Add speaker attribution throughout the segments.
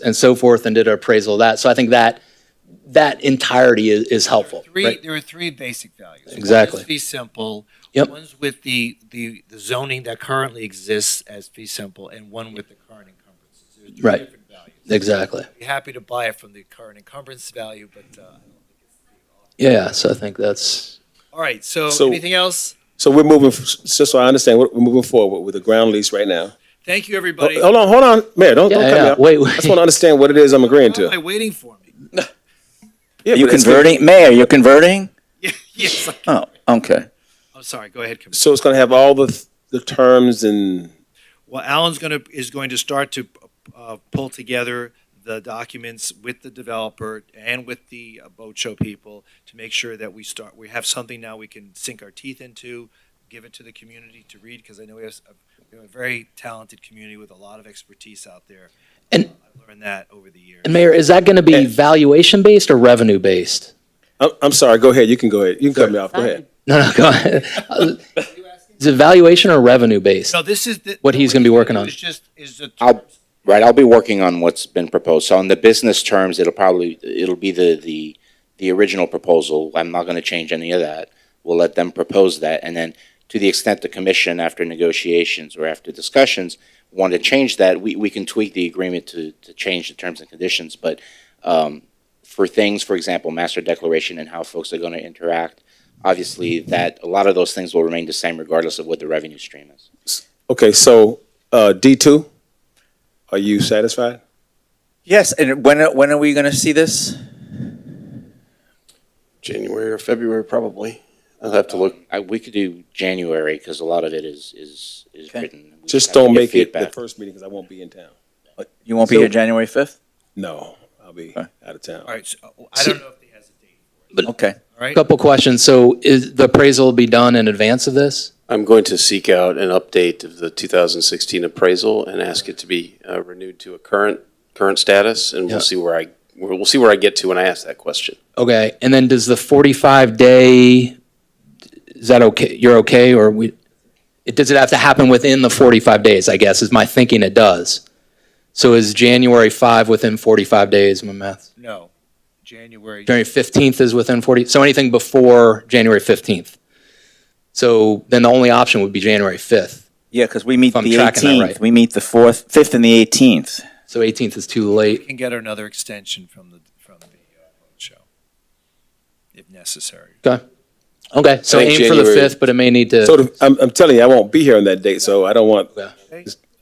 Speaker 1: and so forth and did an appraisal of that. So I think that, that entirety is, is helpful.
Speaker 2: Three,
Speaker 1: right?
Speaker 2: there are three basic values.
Speaker 1: Exactly.
Speaker 2: One is fee simple.
Speaker 1: Yep.
Speaker 2: One's with the, the the zoning that currently exists as fee simple, and one with the current encumbrances. They're three
Speaker 1: Right.
Speaker 2: different values.
Speaker 1: Exactly.
Speaker 2: I'd be happy to buy it from the current encumbrance value, but, uh,
Speaker 1: Yeah, so I think that's,
Speaker 2: all right, so
Speaker 3: So-
Speaker 2: anything else?
Speaker 3: So we're moving, just so I understand, we're we're moving forward with the ground lease right now.
Speaker 2: Thank you, everybody.
Speaker 1: Oh,
Speaker 3: Hold on, hold on, Mayor, don't, don't
Speaker 1: yeah,
Speaker 3: cut me
Speaker 1: yeah,
Speaker 3: off.
Speaker 1: wait,
Speaker 3: I just want to
Speaker 1: wait.
Speaker 3: understand what it is I'm agreeing
Speaker 2: Why am I
Speaker 3: to.
Speaker 2: waiting for me?
Speaker 3: Yeah,
Speaker 4: You
Speaker 3: but it's-
Speaker 4: converting, Mayor, you're converting?
Speaker 2: Yeah, Yes, I-
Speaker 4: Oh, okay.
Speaker 2: I'm sorry, go ahead. Commissioner.
Speaker 3: So it's going to have all the, the terms and,
Speaker 2: Well, Alan's going to, is going to start to uh, pull together the documents with the developer and with the uh, boat show people to make sure that we start, we have something now we can sink our teeth into, give it to the community to read, because I know we have s- a- we have a very talented community with a lot of expertise out there.
Speaker 1: And-
Speaker 2: Uh, I've learned that over the years.
Speaker 1: and Mayor, is that going to be
Speaker 3: Yeah.
Speaker 1: valuation-based or revenue-based?
Speaker 3: I'm, I'm sorry, go ahead, you can go ahead, you can cut me off, go ahead.
Speaker 1: No, no, go ahead. Is it valuation or revenue-based?
Speaker 2: So this is. the-
Speaker 1: What he's gonna be working on.
Speaker 2: It's just, is the.
Speaker 4: I'll- Right, I'll be working on what's been proposed. So on the business terms, it'll probably, it'll be the, the, the original proposal. I'm not gonna change any of that. We'll let them propose that, and then to the extent the commission, after negotiations or after discussions, want to change that, we, we can tweak the agreement to, to change the terms and conditions, but, um, for things, for example, master declaration and how folks are gonna interact, obviously that, a lot of those things will remain the same regardless of what the revenue stream is.
Speaker 3: Okay, so, uh, D two, are you satisfied?
Speaker 5: Yes, and when when are we going to see this?
Speaker 6: January or February, probably. I'll have to look.
Speaker 4: I, we could do January because a lot of it is is is
Speaker 5: Okay.
Speaker 4: written. We
Speaker 3: Just
Speaker 4: have to
Speaker 3: don't
Speaker 4: get
Speaker 3: make it the
Speaker 4: feedback.
Speaker 3: first meeting, because I won't be in town.
Speaker 5: You won't
Speaker 3: So-
Speaker 5: be here January fifth.
Speaker 3: No, I'll be
Speaker 5: Okay.
Speaker 3: out of town.
Speaker 2: All right, so oh, I don't know if he has a date,
Speaker 5: Okay.
Speaker 2: all right?
Speaker 1: Couple questions. So is the appraisal will be done in advance of this?
Speaker 6: I'm going to seek out an update of the 2016 appraisal and ask it to be uh, renewed to a current, current status, and
Speaker 1: Yeah.
Speaker 6: we'll see where I, we'll we'll see where I get to when I ask that question.
Speaker 1: Okay, and then does the 45-day, is that okay, you're okay, or we, it, does it have to happen within the 45 days, I guess, is my thinking it does? So is January 5 within 45 days, my math?
Speaker 2: No, January.
Speaker 1: January 15th is within 40, so anything before January 15th? So then the only option would be January 5th.
Speaker 5: Yeah, because we meet
Speaker 1: If I'm
Speaker 5: the
Speaker 1: tracking that
Speaker 5: eighteenth.
Speaker 1: right.
Speaker 5: We meet the fourth, fifth, and the eighteenth.
Speaker 1: So 18th is too
Speaker 2: We
Speaker 1: late.
Speaker 2: can get another extension from the, from the uh, boat show, if necessary.
Speaker 1: Okay, so
Speaker 6: I think
Speaker 1: aim for the
Speaker 6: January-
Speaker 1: 5th, but it may need
Speaker 3: So
Speaker 1: to,
Speaker 3: the- I'm, I'm telling you, I won't be here on that date, so I don't want,
Speaker 1: Yeah.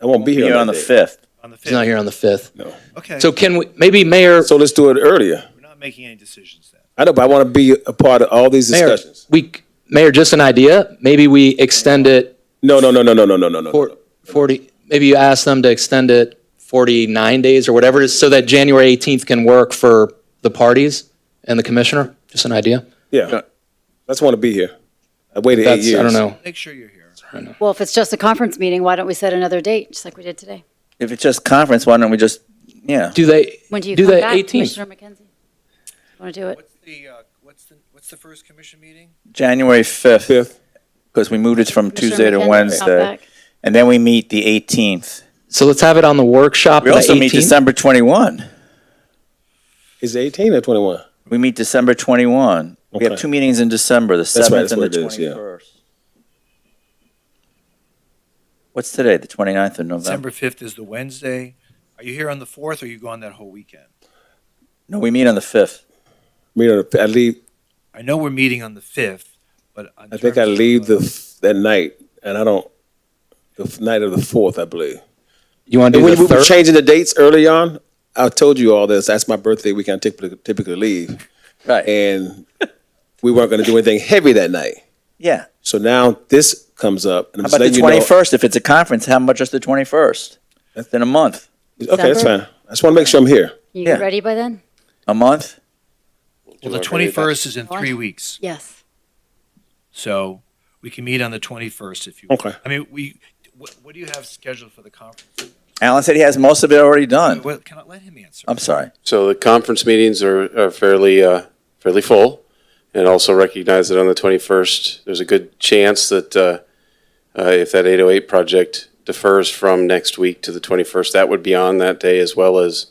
Speaker 3: I won't be here
Speaker 5: Here
Speaker 3: on
Speaker 5: on
Speaker 3: that
Speaker 5: the
Speaker 3: date.
Speaker 5: fifth.
Speaker 2: On the
Speaker 1: it's not
Speaker 2: 5th,
Speaker 1: here on the 5th.
Speaker 2: okay.
Speaker 1: So can we, maybe Mayor,
Speaker 3: So let's do it earlier.
Speaker 2: We're not making any decisions then.
Speaker 3: I know, but I want to be a part of all these
Speaker 1: Mayor,
Speaker 3: discussions.
Speaker 1: we, Mayor, just an idea, maybe we extend it
Speaker 3: No, no, no, no, no, no, no, no,
Speaker 1: Four-
Speaker 3: no.
Speaker 1: 40, maybe you ask them to extend it 49 days or whatever it is, so that January 18th can work for the parties and the commissioner? Just an idea?
Speaker 3: Yeah, I just want to be here. I waited eight
Speaker 1: That's,
Speaker 3: years.
Speaker 1: I don't know.
Speaker 2: Make sure you're here.
Speaker 7: Well, if it's just a conference meeting, why don't we set another date, just like we did today?
Speaker 5: If it's just conference, why don't we just yeah?
Speaker 1: Do they,
Speaker 7: When do you
Speaker 1: Do
Speaker 7: come
Speaker 1: the
Speaker 7: back,
Speaker 1: 18th.
Speaker 7: Commissioner McKenzie? Want to do it?
Speaker 2: What's the, uh, what's the, what's the first commission meeting?
Speaker 5: January fifth.
Speaker 3: Fifth.
Speaker 5: Because we moved it from
Speaker 7: Commissioner
Speaker 5: Tuesday to
Speaker 7: McKenzie,
Speaker 5: Wednesday,
Speaker 7: Outback.
Speaker 5: and then we meet the eighteenth.
Speaker 1: so let's have it on the workshop on
Speaker 5: We
Speaker 1: the
Speaker 5: also meet
Speaker 1: 18th?
Speaker 5: December twenty-one.
Speaker 3: Is it eighteen or twenty-one?
Speaker 5: We meet December twenty-one. We have
Speaker 3: Okay.
Speaker 5: two meetings in December: the
Speaker 3: right,
Speaker 5: seventh
Speaker 3: that's
Speaker 5: and the
Speaker 3: what it is, yeah.
Speaker 5: twenty-first. What's today? The 29th of November.
Speaker 2: December 5th is the Wednesday. Are you here on the 4th or are you gone that whole weekend?
Speaker 5: No, we meet on the fifth.
Speaker 3: Me, and- I leave,
Speaker 2: I know we're meeting on the 5th, but. in
Speaker 3: I think I
Speaker 2: terms of,
Speaker 3: leave the,
Speaker 2: uh,
Speaker 3: f- that night, and I don't, the f- night of the fourth, I believe.
Speaker 1: You want to
Speaker 3: And
Speaker 1: do
Speaker 3: when we
Speaker 1: the
Speaker 3: were
Speaker 1: 3rd?
Speaker 3: changing the dates early on, I told you all this, that's my birthday weekend, I typically, typically leave.
Speaker 5: Right.
Speaker 3: And we weren't going to do anything heavy that night.
Speaker 5: yeah.
Speaker 3: So now this comes up, and I'm
Speaker 5: How
Speaker 3: just
Speaker 5: about the
Speaker 3: letting you know.
Speaker 5: twenty first? If it's a conference, how much is the twenty first? That's in a month.
Speaker 3: Okay, that's
Speaker 7: December?
Speaker 3: fine. I just want to make sure I'm here.
Speaker 7: You
Speaker 5: Yeah.
Speaker 7: ready by then?
Speaker 5: A month?
Speaker 2: Well, the 21st is in three weeks,
Speaker 7: Yes.
Speaker 2: so we can meet on the 21st if you.
Speaker 3: Okay.
Speaker 2: I mean, we, what, what do you have scheduled for the conference?
Speaker 5: Alan said he has most of it already done.
Speaker 2: Well, can I let him answer?
Speaker 5: I'm sorry.
Speaker 6: So the conference meetings are, are fairly, uh, fairly full, and also recognize that on the 21st, there's a good chance that uh, uh, if that 808 project defers from next week to the 21st, that would be on that day as well as